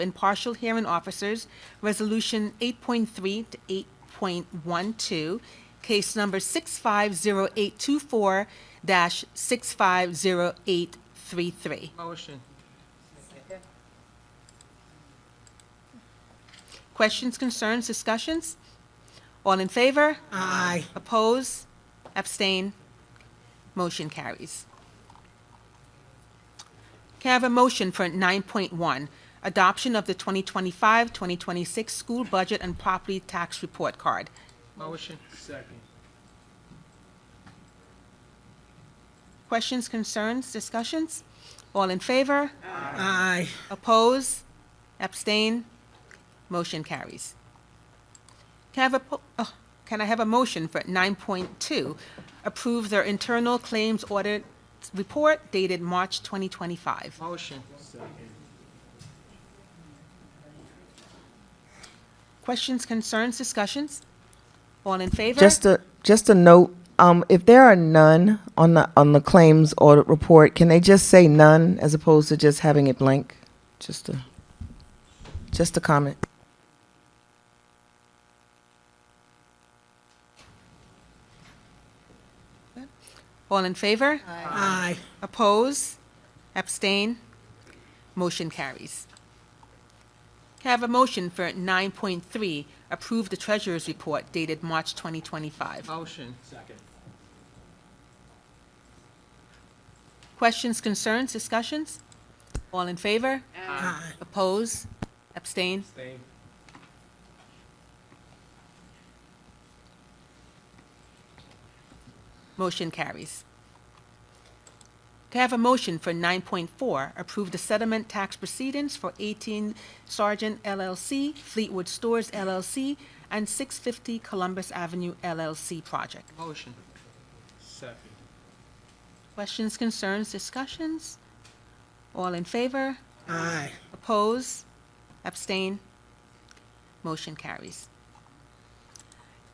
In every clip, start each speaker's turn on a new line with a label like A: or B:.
A: and partial hearing officers, Resolution 8.3 to 8.12, case number 650824-650833.
B: Motion.
A: Questions, concerns, discussions? All in favor?
B: Aye.
A: Oppose? Abstain? Motion carries. Can I have a motion for 9.1, adoption of the 2025-2026 school budget and property tax report card?
B: Motion. Second.
A: Questions, concerns, discussions? All in favor?
B: Aye.
A: Oppose? Abstain? Motion carries. Can I have a, po- oh, can I have a motion for 9.2? Approve their internal claims audit report dated March 2025.
B: Motion.
A: Questions, concerns, discussions? All in favor?
C: Just a, just a note, um, if there are none on the, on the claims audit report, can they just say none as opposed to just having it blank? Just a, just a comment.
A: All in favor?
B: Aye.
A: Oppose? Abstain? Motion carries. Can I have a motion for 9.3? Approve the treasurer's report dated March 2025.
B: Motion. Second.
A: Questions, concerns, discussions? All in favor?
B: Aye.
A: Oppose? Abstain?
B: Same.
A: Motion carries. Can I have a motion for 9.4, approve the settlement tax proceedings for 18 Sergeant LLC, Fleetwood Stores LLC, and 650 Columbus Avenue LLC project?
B: Motion. Second.
A: Questions, concerns, discussions? All in favor?
B: Aye.
A: Oppose? Abstain? Motion carries.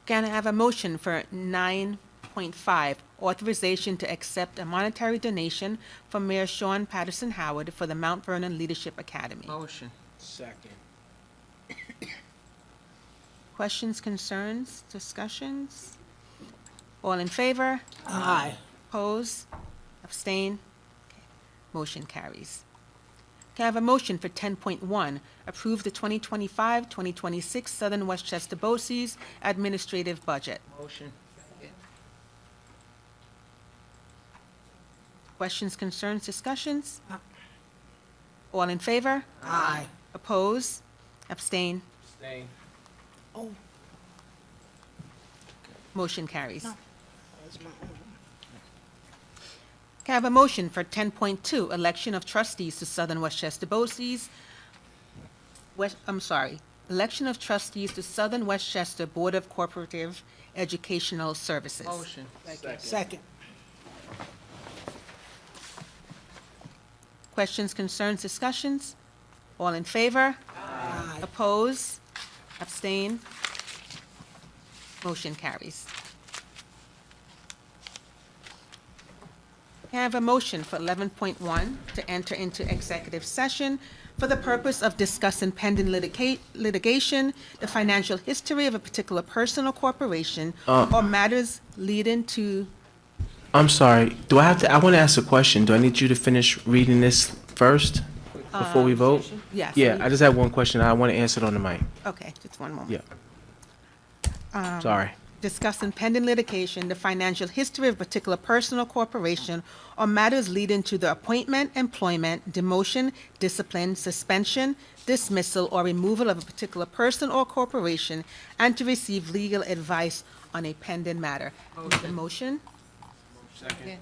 A: Can I have a motion for 9.5, authorization to accept a monetary donation from Mayor Sean Patterson Howard for the Mount Vernon Leadership Academy?
B: Motion. Second.
A: Questions, concerns, discussions? All in favor?
B: Aye.
A: Oppose? Abstain? Okay. Motion carries. Can I have a motion for 10.1? Approve the 2025-2026 Southern Westchester BOCES Administrative Budget.
B: Motion.
A: Questions, concerns, discussions? All in favor?
B: Aye.
A: Oppose? Abstain?
B: Same.
A: Motion carries. Can I have a motion for 10.2, election of trustees to Southern Westchester BOCES? West, I'm sorry, election of trustees to Southern Westchester Board of Corporative Educational Services.
B: Motion. Second.
D: Second.
A: Questions, concerns, discussions? All in favor? Aye. Oppose? Abstain? Motion carries. Can I have a motion for 11.1 to enter into executive session for the purpose of discussing pending litica- litigation, the financial history of a particular person or corporation, or matters leading to,
E: I'm sorry, do I have to, I want to ask a question. Do I need you to finish reading this first before we vote?
A: yes.
E: Yeah, I just have one question. I want to answer it on the mic.
A: Okay, just one moment.
E: Yeah. Sorry.
A: discussing pending litigation, the financial history of a particular person or corporation, or matters leading to the appointment, employment, demotion, discipline, suspension, dismissal, or removal of a particular person or corporation, and to receive legal advice on a pending matter.
B: Motion.
A: Motion?
B: Second.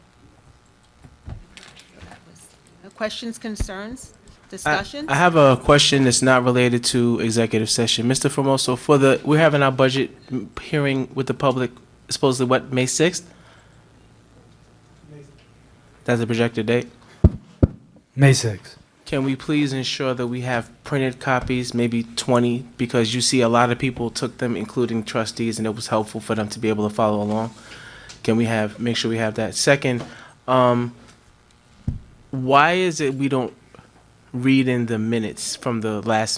A: Questions, concerns,
E: I
A: discussions?
E: I have a question that's not related to executive session. Mr. Formoso, for the, we're having our budget m- hearing with the public supposedly what, May 6th? That's the projected date?
F: May 6th.
E: Can we please ensure that we have printed copies, maybe 20? Because you see, a lot of people took them, including trustees, and it was helpful for them to be able to follow along. Can we have, make sure we have that? Second, um, why is it we don't read in the minutes from the last